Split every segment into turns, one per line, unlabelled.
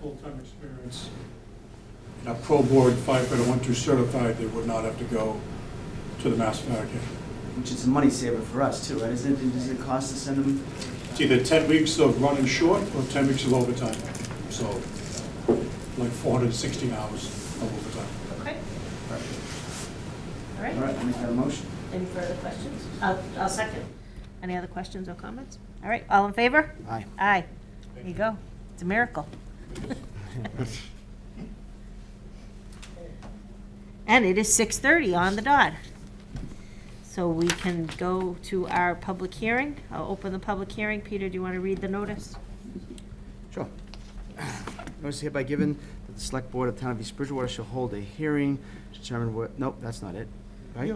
full-time experience, and a pro board firefighter one, two certified, they would not have to go to the mass fire academy.
Which is a money saver for us too, right? Isn't it, does it cost to send them?
It's either ten weeks of running short or ten weeks of overtime, so like four hundred and sixteen hours of overtime.
Okay, all
All
right.
right, I'll make that a motion.
Any further questions? I'll, I'll second. Any other questions or comments? All right, all in favor?
Aye.
Aye. There you go. It's a miracle. And it is six thirty on the dot. So we can go to our public hearing. I'll open the public hearing. Peter, do you want to read the notice?
Sure. Notice hereby given that the Select Board of Town of East Bridgewater shall hold a hearing to determine what, nope, that's not it, right?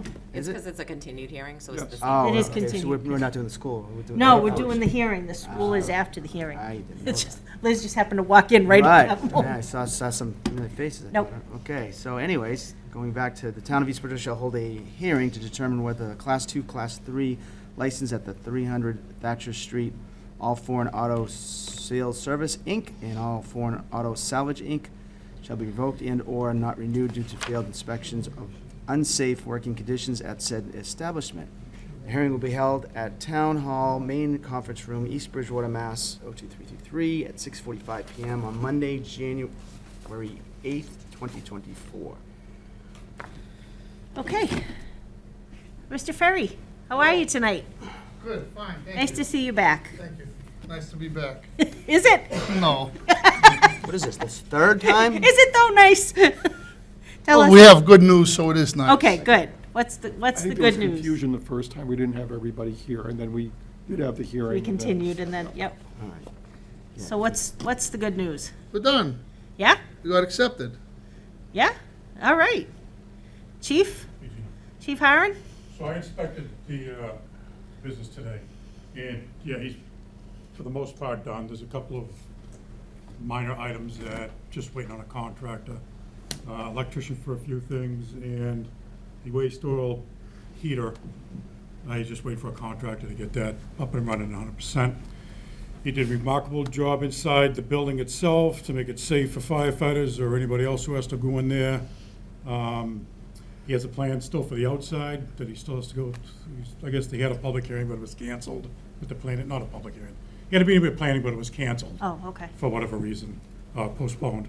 Is
It's because
it?
it's a continued hearing, so it's
Yes.
the same.
Oh,
It is
okay, so we're,
continued.
we're not doing the school. doing
No,
the
we're
hours.
doing the hearing. The school is after the hearing.
I didn't know
It's
that.
just, Liz just happened to walk in right at that
Right, yeah, I
moment.
saw, saw some familiar faces. I
Nope.
thought, Okay, so anyways, going back to, the town of East Bridgewater shall hold a hearing to determine whether a Class Two, Class Three license at the three hundred Thatcher Street, All Foreign Auto Sales Service, Inc., and All Foreign Auto Salvage, Inc., shall be revoked and/or not renewed due to failed inspections of unsafe working conditions at said establishment. The hearing will be held at Town Hall, Main Conference Room, East Bridgewater, Mass. 02333 at 6:45 PM on Monday, January 8th, 2024.
Okay. Mr. Ferry, how are you tonight?
Good, fine, thank you.
Nice to see you back.
Thank you. Nice to be back.
Is it?
No.
What is this, the third time?
Is it though nice? Tell
Well, Oh, we
us.
have good news, so it is nice.
Okay, good. What's the, what's the
I
good
think there was
news?
confusion the first time, we didn't have everybody here, and then we did have the hearing.
We
and then-
continued and then, yep.
All right.
So what's, what's the good news?
We're done.
Yeah?
We got accepted.
Yeah? All right. Chief? Chief Haran?
So I inspected the uh, business today, and, yeah, he's, for the most part, done. There's a couple of minor items that, just waiting on a contractor, uh, electrician for a few things, and the waste oil heater. I just wait for a contractor to get that up and running hundred percent. He did a remarkable job inside the building itself to make it safe for firefighters or anybody else who has to go in there. Um, He has a plan still for the outside that he still has to go, I guess they had a public hearing, but it was canceled with the plan, not a public hearing. He had to be in with planning, but it was canceled
Oh, okay.
for whatever reason, uh, postponed.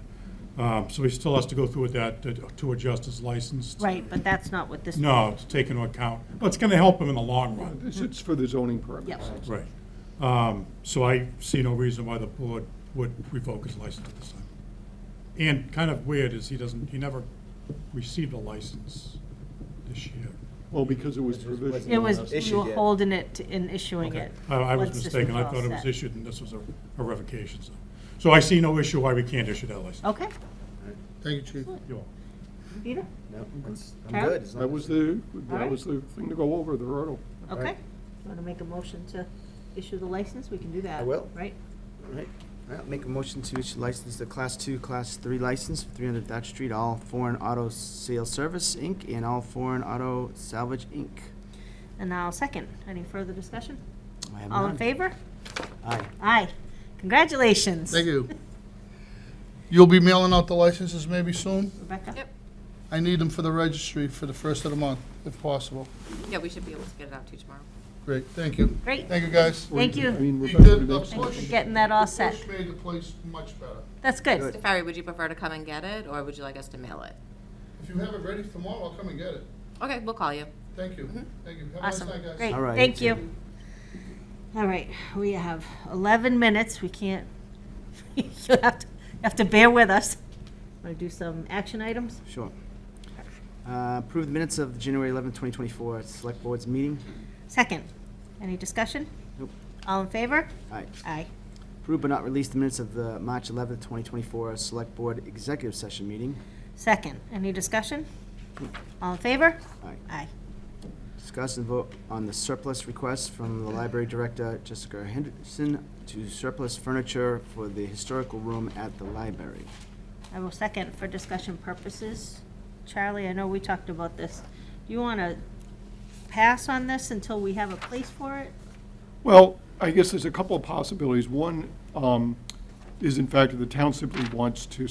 Um, So he still has to go through with that to- to adjust his license.
Right, but that's not what this.
No, to take into account, but it's going to help him in the long run.
It's it's for the zoning permits.
Yep.
Right. Um, So I see no reason why the board would revoke his license at this time. And kind of weird is he doesn't, he never received a license this year.
Well, because it was provisional.
It was,
Issued
you were
yet.
holding it and issuing it.
I I was
once this
mistaken, I
all
thought it was
set.
issued and this was a a revocation, so. So I see no issue why we can't issue that license.
Okay.
Thank you, Chief.
You're welcome.
Peter?
No, that's- I'm
Carol?
good. as long
That
as-
was the,
Alright.
that was the thing to go over, the hurdle.
Okay. Want to make a motion to issue the license? We can do that.
I will.
Right?
All right. All right, I'll make a motion to issue license, the Class Two, Class Three license, for 300 Thatcher Street, All Foreign Auto Sales Service, Inc., and All Foreign Auto Salvage, Inc.
And I'll second. Any further discussion?
I have
All in
none.
favor?
Aye.
Aye. Congratulations.
Thank you. You'll be mailing out the licenses maybe soon?
Rebecca?
Yep.
I need them for the registry for the first of the month, if possible.
Yeah, we should be able to get it out to you tomorrow.
Great, thank you.
Great.
Thank you, guys.
Thank
I
you.
mean,
You
Rebecca
did
would
a
make-
Thanks for
push.
getting that all set.
Push made the place much better.
That's good.
Mr. Ferry, would you prefer to come and get it, or would you like us to mail it?
If you have it ready tomorrow, I'll come and get it.
Okay, we'll call you.
Thank you, thank you. Have a nice
Mm-hmm. Awesome.
night, guys.
Great.
All right.
Thank you. All right, we have 11 minutes. We can't, you'll have to, you have to bear with us. Want to do some action items?
Sure. Uh, Approve the minutes of the January 11th, 2024 Select Board's meeting.
Second, any discussion?
Nope.
All in favor?
All right.
Aye.
Approve but not release the minutes of the March 11th, 2024 Select Board Executive Session Meeting.
Second, any discussion? All in favor?
Aye.
Aye.
Discuss and vote on the surplus request from the Library Director Jessica Henderson to surplus furniture for the historical room at the library.
I will second for discussion purposes. Charlie, I know we talked about this. Do you want to pass on this until we have a place for it?
Well, I guess there's a couple of possibilities. One, um, is in fact, that the town simply wants to